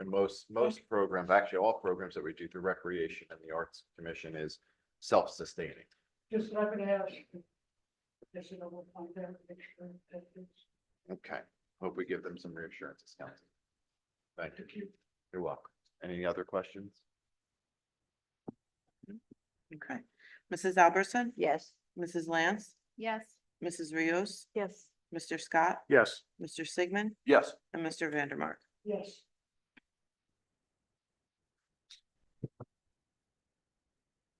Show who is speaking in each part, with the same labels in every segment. Speaker 1: And most, most programs, actually all programs that we do through Recreation and the Arts Commission is self-sustaining.
Speaker 2: Just what I'm gonna ask. Just so we'll find out, make sure that it's,
Speaker 1: Okay, hope we give them some reassurance, it's counting. Thank you,
Speaker 2: to keep
Speaker 1: you're welcome. Any other questions?
Speaker 3: Okay. Mrs. Albertson?
Speaker 4: Yes.
Speaker 3: Mrs. Lance?
Speaker 4: Yes.
Speaker 3: Mrs. Rios?
Speaker 4: Yes.
Speaker 3: Mr. Scott?
Speaker 1: Yes.
Speaker 3: Mr. Sigmund?
Speaker 1: Yes.
Speaker 3: And Mr. Vandermark?
Speaker 2: yes.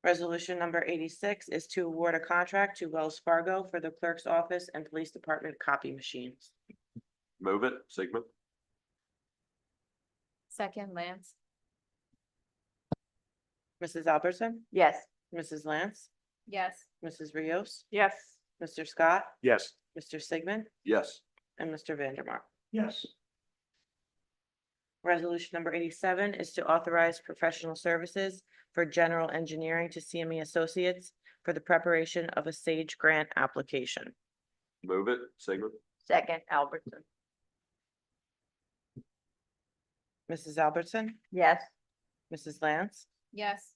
Speaker 3: Resolution number eighty-six is to award a contract to Wells Fargo for the clerk's office and police department copy machines.
Speaker 1: Move it, Sigmund.
Speaker 4: Second, Lance.
Speaker 3: Mrs. Albertson?
Speaker 4: Yes.
Speaker 3: Mrs. Lance?
Speaker 4: Yes.
Speaker 3: Mrs. Rios?
Speaker 4: Yes.
Speaker 3: Mr. Scott?
Speaker 1: Yes.
Speaker 3: Mr. Sigmund?
Speaker 1: Yes.
Speaker 3: And Mr. Vandermark?
Speaker 2: Yes,
Speaker 3: Resolution number eighty-seven is to authorize professional services for general engineering to CME Associates for the preparation of a SAGE grant application.
Speaker 1: Move it, Sigmund.
Speaker 4: Second, Albertson.
Speaker 3: Mrs. Albertson?
Speaker 4: Yes.
Speaker 3: Mrs. Lance?
Speaker 4: Yes.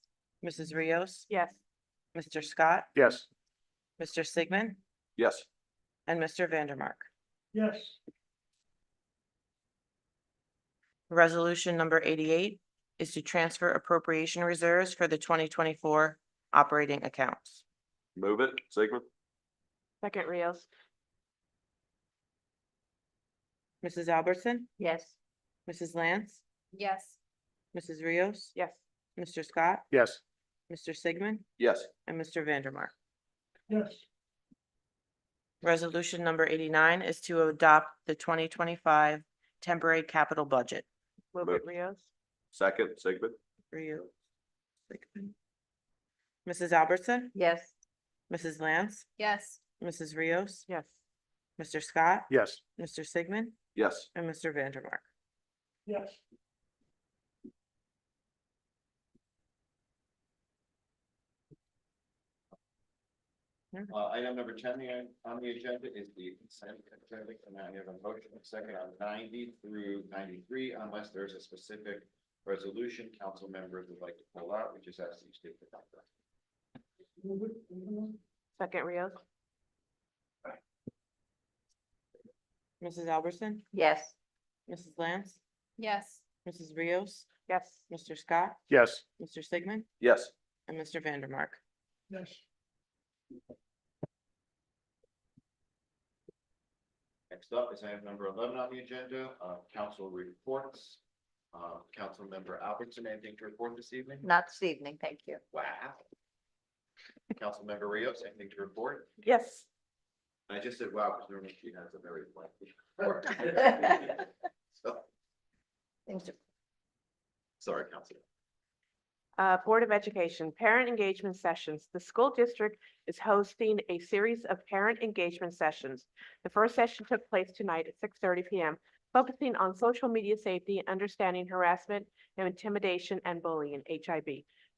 Speaker 3: Mrs. Rios?
Speaker 4: Yes.
Speaker 3: Mr. Scott?
Speaker 1: Yes.
Speaker 3: Mr. Sigmund?
Speaker 1: Yes.
Speaker 3: And Mr. Vandermark?
Speaker 2: yes,
Speaker 3: Resolution number eighty-eight is to transfer appropriation reserves for the twenty twenty-four operating accounts.
Speaker 1: Move it, Sigmund.
Speaker 4: Second, Rios.
Speaker 3: Mrs. Albertson?
Speaker 4: Yes.
Speaker 3: Mrs. Lance?
Speaker 4: Yes.
Speaker 3: Mrs. Rios?
Speaker 4: Yes.
Speaker 3: Mr. Scott?
Speaker 1: Yes.
Speaker 3: Mr. Sigmund?
Speaker 1: Yes.
Speaker 3: And Mr. Vandermark?
Speaker 2: yes,
Speaker 3: Resolution number eighty-nine is to adopt the twenty twenty-five temporary capital budget.
Speaker 1: Wilbert
Speaker 4: Rios.
Speaker 1: Second, Sigmund.
Speaker 3: For you. Sigmund. Mrs. Albertson?
Speaker 4: Yes.
Speaker 3: Mrs. Lance?
Speaker 4: Yes.
Speaker 3: Mrs. Rios?
Speaker 4: Yes.
Speaker 3: Mr. Scott?
Speaker 1: Yes.
Speaker 3: Mr. Sigmund?
Speaker 1: Yes.
Speaker 3: And Mr. Vandermark?
Speaker 2: yes,
Speaker 5: Uh, item number ten the- on the agenda is the consent agenda, and I have a motion and second on ninety through ninety-three, unless there's a specific resolution council members would like to pull out, which is as you state the number.
Speaker 2: Move it, move it.
Speaker 4: Second, Rios.
Speaker 3: Mrs. Albertson?
Speaker 4: Yes.
Speaker 3: Mrs. Lance?
Speaker 4: Yes.
Speaker 3: Mrs. Rios?
Speaker 4: Yes.
Speaker 3: Mr. Scott?
Speaker 1: Yes.
Speaker 3: Mr. Sigmund?
Speaker 1: Yes.
Speaker 3: And Mr. Vandermark?
Speaker 2: yes,
Speaker 5: Next up is item number eleven on the agenda, uh, council reports. Uh, council member Albertson, anything to report this evening?
Speaker 4: Not this evening, thank you.
Speaker 5: Wow. Council member Rios, anything to report?
Speaker 4: Yes.
Speaker 5: I just said, wow, because normally she has a very lengthy. report. So, Sorry, Council.
Speaker 6: Uh, Board of Education Parent Engagement Sessions. The school district is hosting a series of parent engagement sessions. The first session took place tonight at six thirty PM, focusing on social media safety, understanding harassment and intimidation and bullying, HIB.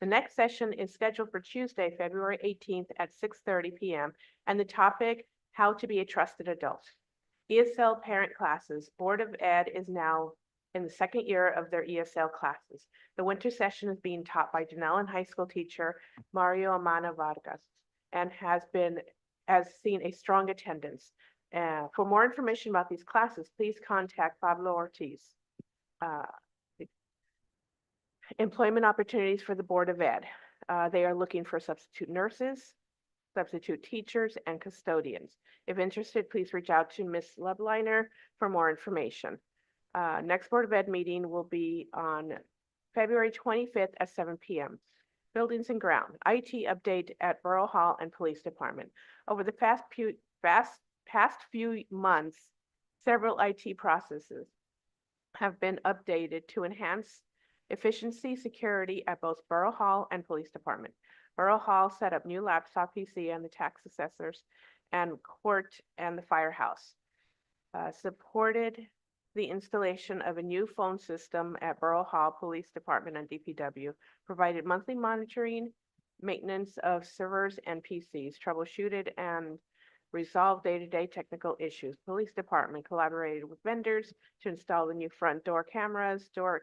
Speaker 6: The next session is scheduled for Tuesday, February eighteenth at six thirty PM, and the topic, how to be a trusted adult. ESL parent classes. Board of Ed is now in the second year of their ESL classes. The winter session is being taught by Denellen High School teacher Mario Amana Vargas and has been, has seen a strong attendance. Uh, for more information about these classes, please contact Pablo Ortiz. Uh, Employment opportunities for the Board of Ed. Uh, they are looking for substitute nurses, substitute teachers, and custodians. If interested, please reach out to Ms. Lubliner for more information. Uh, next Board of Ed meeting will be on February twenty-fifth at seven PM. Buildings and ground, IT update at Borough Hall and Police Department. Over the past few, past, past few months, several IT processes have been updated to enhance efficiency, security at both Borough Hall and Police Department. Borough Hall set up new laptop PC and the tax assessors and court and the firehouse. Uh, supported the installation of a new phone system at Borough Hall Police Department and DPW, provided monthly monitoring, maintenance of servers and PCs, troubleshooted and resolved day-to-day technical issues. Police Department collaborated with vendors to install the new front door cameras, door